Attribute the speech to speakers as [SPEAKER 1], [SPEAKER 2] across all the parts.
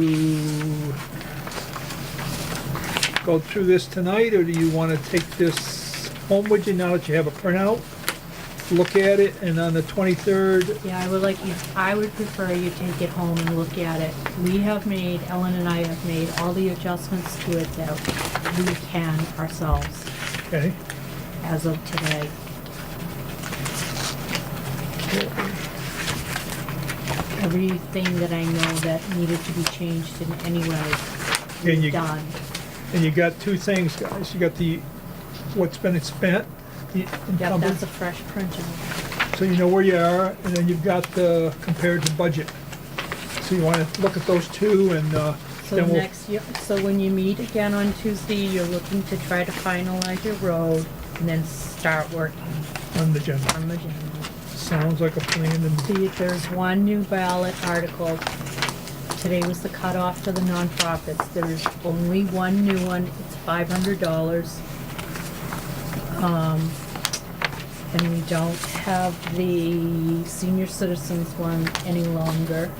[SPEAKER 1] to go through this tonight, or do you want to take this home with you now that you have a printout? Look at it, and on the 23rd,
[SPEAKER 2] Yeah, I would like you, I would prefer you take it home and look at it. We have made, Ellen and I have made all the adjustments to it that we can ourselves
[SPEAKER 1] okay?
[SPEAKER 2] as of today. Everything that I know that needed to be changed in any way,
[SPEAKER 1] Can you-
[SPEAKER 2] we've done.
[SPEAKER 1] And you got two things, guys. You got the, what's been spent, the
[SPEAKER 2] Yep,
[SPEAKER 1] encumbered,
[SPEAKER 2] that's a fresh printing.
[SPEAKER 1] so you know where you are, and then you've got the compared to budget. So you want to look at those two, and uh,
[SPEAKER 2] So
[SPEAKER 1] then we'll,
[SPEAKER 2] next, year- so when you meet again on Tuesday, you're looking to try to finalize your road and then start working
[SPEAKER 1] on the agenda.
[SPEAKER 2] on the general.
[SPEAKER 1] Sounds like a plan, and,
[SPEAKER 2] See, there's one new ballot article. Today was the cutoff for the nonprofits. There is only one new one. It's five hundred dollars. Um, and we don't have the senior citizens one any longer.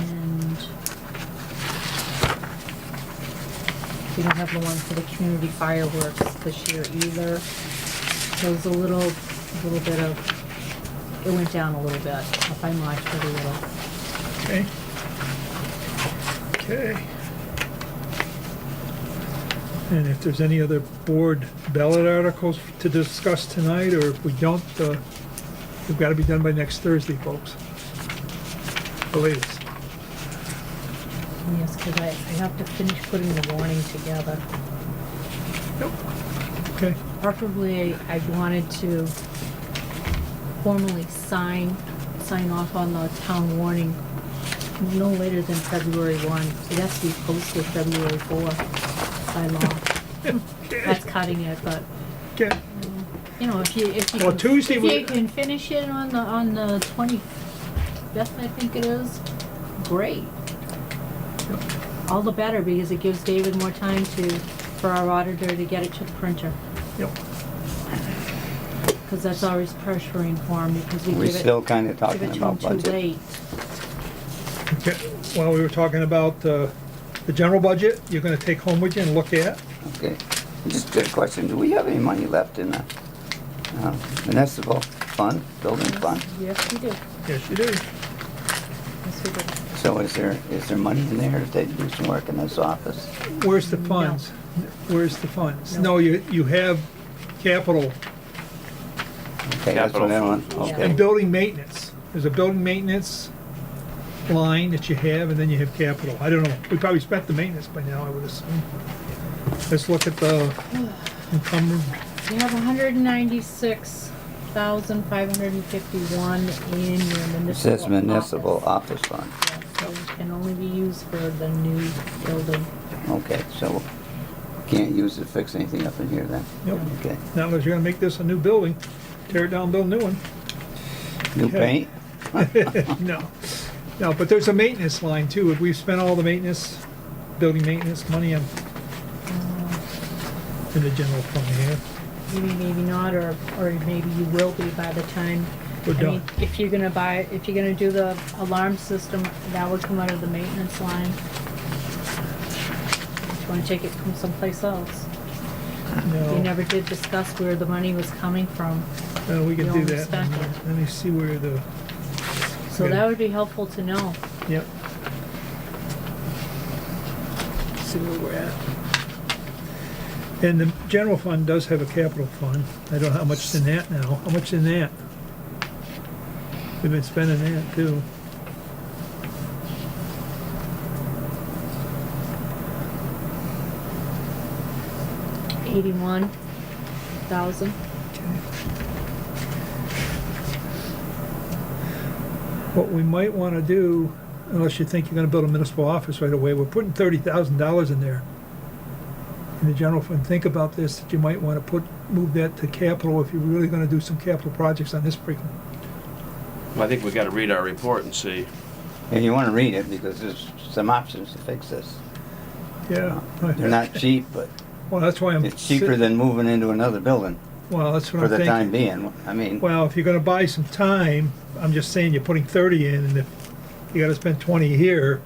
[SPEAKER 2] And we don't have the one for the community fireworks this year either. So it's a little, little bit of it went down a little bit, if I might, pretty little.
[SPEAKER 1] okay? Okay. And if there's any other board ballot articles to discuss tonight, or if we don't, uh, they've got to be done by next Thursday, folks. The latest.
[SPEAKER 2] Yes, because I, I have to finish putting the warning together.
[SPEAKER 1] Nope. Okay,
[SPEAKER 2] Preferably, I wanted to formally sign, sign off on the town warning no later than February one. It has to be posted February four by law. That's cutting it, but,
[SPEAKER 1] okay.
[SPEAKER 2] you know, if you, if you.
[SPEAKER 1] Well,
[SPEAKER 2] can-
[SPEAKER 1] Tuesday
[SPEAKER 2] If
[SPEAKER 1] we-
[SPEAKER 2] you can finish it on the, on the twenty-fifth, I think it is, great. All the better, because it gives David more time to, for our auditor to get it to the printer,
[SPEAKER 1] Yep.
[SPEAKER 2] because that's always pressuring for him, because we
[SPEAKER 3] We're
[SPEAKER 2] give it,
[SPEAKER 3] still kind of
[SPEAKER 2] give
[SPEAKER 3] talking
[SPEAKER 2] it to him
[SPEAKER 3] about
[SPEAKER 2] too
[SPEAKER 3] budget.
[SPEAKER 2] late.
[SPEAKER 1] Okay, While we were talking about uh, the general budget, you're gonna take home with you and look at.
[SPEAKER 3] Okay, just a question, do we have any money left in the uh, municipal fund, building fund?
[SPEAKER 2] Yes, we do,
[SPEAKER 1] Yes, you do.
[SPEAKER 2] yes, we do.
[SPEAKER 3] So is there, is there money in there if they do some work in this office?
[SPEAKER 1] Where's the funds? Where's the funds?
[SPEAKER 2] No.
[SPEAKER 1] No, you, you have capital
[SPEAKER 3] Okay, that's what I
[SPEAKER 4] Capital
[SPEAKER 3] want,
[SPEAKER 2] Yeah.
[SPEAKER 1] and
[SPEAKER 3] okay.
[SPEAKER 1] building maintenance. There's a building maintenance line that you have, and then you have capital. I don't know, we probably spent the maintenance by now, I would assume. Let's look at the encumbered,
[SPEAKER 2] You have hundred and ninety-six thousand five hundred and fifty-one in your municipal
[SPEAKER 3] It says municipal
[SPEAKER 2] office.
[SPEAKER 3] office fund,
[SPEAKER 2] Yeah, so it Can only be used for the new building.
[SPEAKER 3] okay, so can't use it to fix anything up in here then?
[SPEAKER 1] Nope.
[SPEAKER 3] Okay,
[SPEAKER 1] not unless you're gonna make this a new building, tear it down, build a new one.
[SPEAKER 3] new
[SPEAKER 1] Okay.
[SPEAKER 3] paint?
[SPEAKER 1] No, no, but there's a maintenance line too. If we've spent all the maintenance, building maintenance money in, in the general fund here.
[SPEAKER 2] Maybe, maybe not, or, or maybe you will be by the time.
[SPEAKER 1] We're
[SPEAKER 2] I mean,
[SPEAKER 1] done.
[SPEAKER 2] If you're gonna buy, if you're gonna do the alarm system, that would come out of the maintenance line. If you wanna take it from someplace else. You
[SPEAKER 1] No,
[SPEAKER 2] never did discuss where the money was coming from,
[SPEAKER 1] no, we can do
[SPEAKER 2] you don't
[SPEAKER 1] that.
[SPEAKER 2] respect it.
[SPEAKER 1] Let me see where the,
[SPEAKER 2] so
[SPEAKER 1] Yeah.
[SPEAKER 2] that would be helpful to know.
[SPEAKER 1] yep. See where we're at. And the general fund does have a capital fund. I don't know how much is in that now. How much is in that? We've been spending that too.
[SPEAKER 2] Eighty-one thousand,
[SPEAKER 1] What we might want to do, unless you think you're going to build a municipal office right away, we're putting thirty thousand dollars in there. In the general fund, think about this, that you might want to put, move that to capital if you're really going to do some capital projects on this frequent.
[SPEAKER 4] I think we gotta read our report and see.
[SPEAKER 3] If you want to read it, because there's some options to fix this.
[SPEAKER 1] Yeah.
[SPEAKER 3] They're not cheap, but
[SPEAKER 1] Well, that's why I'm.
[SPEAKER 3] it's cheaper than moving into another building
[SPEAKER 1] Well, that's what
[SPEAKER 3] for
[SPEAKER 1] I'm
[SPEAKER 3] the
[SPEAKER 1] thinking.
[SPEAKER 3] time being. I mean,
[SPEAKER 1] Well, if you're going to buy some time, I'm just saying you're putting thirty in, and if you got to spend twenty here,